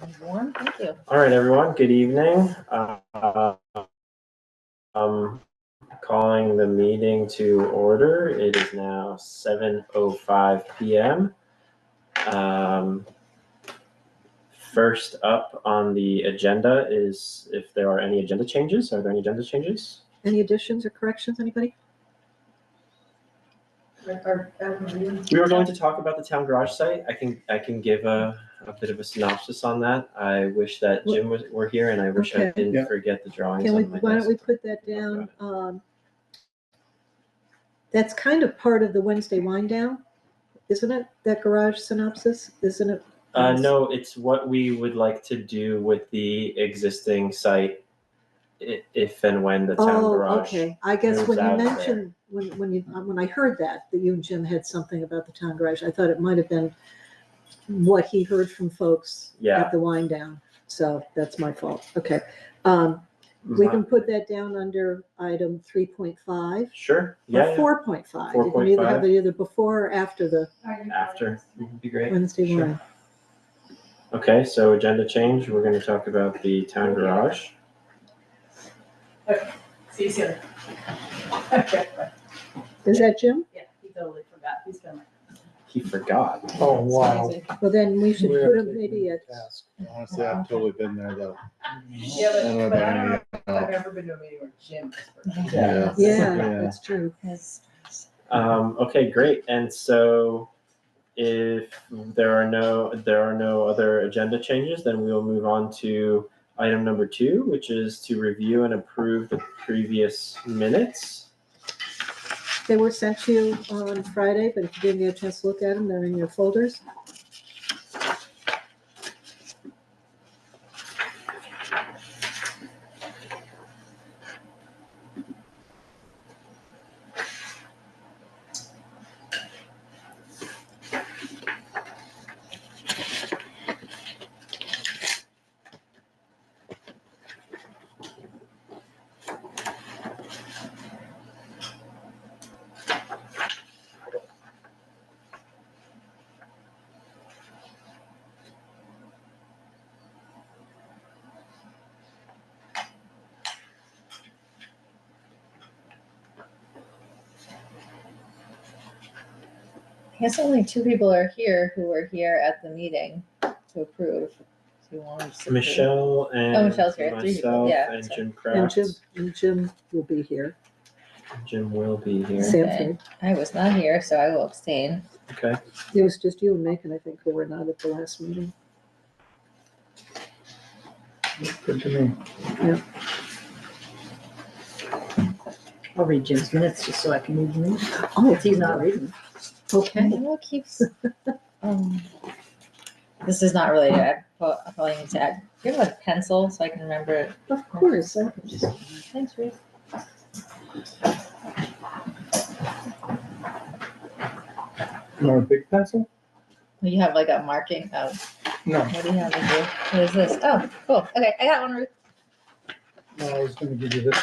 Sounds warm. Thank you. All right, everyone, good evening. Uh, um, Calling the meeting to order. It is now 7:05 PM. Um, First up on the agenda is if there are any agenda changes. Are there any agenda changes? Any additions or corrections, anybody? We were going to talk about the town garage site. I can, I can give a, a bit of a synopsis on that. I wish that Jim was, were here and I wish I Okay. didn't Yeah. forget the drawings Can we, on my why don't desk. we put that down? um, That's kind of part of the Wednesday wind down, isn't it? That garage synopsis, isn't it? Uh, no, it's what we would like to do with the existing site i- if and when the town Oh, garage. okay. I guess moves when out you of there. mentioned, when, when you, uh, when I heard that, that you and Jim had something about the town garage, I thought it might have been what he heard from folks Yeah. at the wind down. So that's my fault. Okay. Um, We My- can put that down under item three point five Sure, or yeah, yeah, four point five. You can either have 4.5. it either before or after the after, would Mm-hmm. be great. Wednesday Sure. morning. Okay, so agenda change, we're gonna talk about the town garage. See you soon. Is that Jim? Yeah, he totally forgot. He's been like. He forgot. Oh, wow. Amazing. Well, then we should We're put him taking maybe the at, task. Honestly, I've totally been there though. Yeah, I don't know but, but I don't know if about any, I've ever been to a meeting where Jim was first. yeah. yeah, Yeah. that's true. Um, okay, great, and so if there are no, there are no other agenda changes, then we will move on to item number two, which is to review and approve the previous minutes. They were sent to you on Friday, but if you didn't get a chance to look at them, they're in your folders. I guess only two people are here who were here at the meeting to approve. Do you want to just approve? Michelle and Oh, Michelle's here. Three people. myself Yeah, and sorry. Jim And Kraft. Jim, and Jim will be here. Jim will be here. Sanford. I was not here, so I will abstain. Okay. It was just you and Macon, I think, who were not at the last meeting. Good to me. I'll read Jim's minutes just so I can read them. Oh, If he's not reading. Okay. What keeps, um, this is not related. I pro- I probably need to add, do you have a pencil so I can remember it? Of course. I- Thanks, Ruth. You want a big pencil? You have like a marking of, No, what do you have to do? What is this? Oh, cool. Okay, I got one, Ruth. no, I was gonna give you this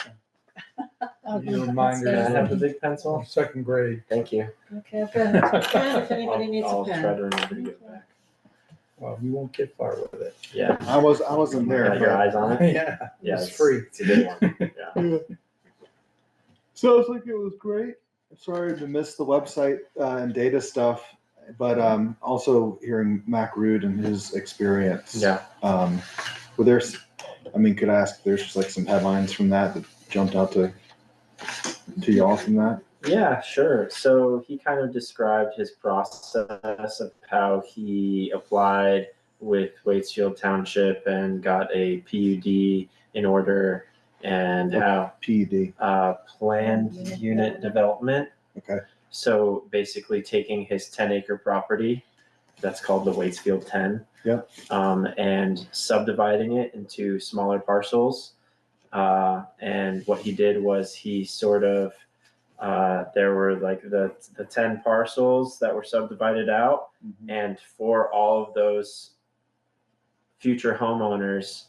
Oh, one. You remind Can I her have the big pencil? of second grade. Thank you. Okay, I've got a pen if Well, anybody I'll- needs a I'll try pen. to remember to get back. you won't get far with it. Yeah. I was, I wasn't there. Got your eyes on it? Yeah, Yeah. it's free. It's a good one. Yeah. Sounds like it was great. I'm Sorry to miss the website uh, and data stuff, but um, also hearing Mac Rude and his experience. Yeah. Um, were there, s- I mean, could I ask, there's just like some headlines from that that jumped out to, to y'all from that? Yeah, sure. So he kind of described his process of how he applied with Waitsfield Township and got a PUD in order and how PED. uh, planned unit development. Okay. So basically taking his ten acre property, that's called the Waitsfield ten. Yep. Um, and subdividing it into smaller parcels. Uh, and what he did was he sort of, uh, there were like the, the ten parcels that were subdivided out. And for all of those future homeowners,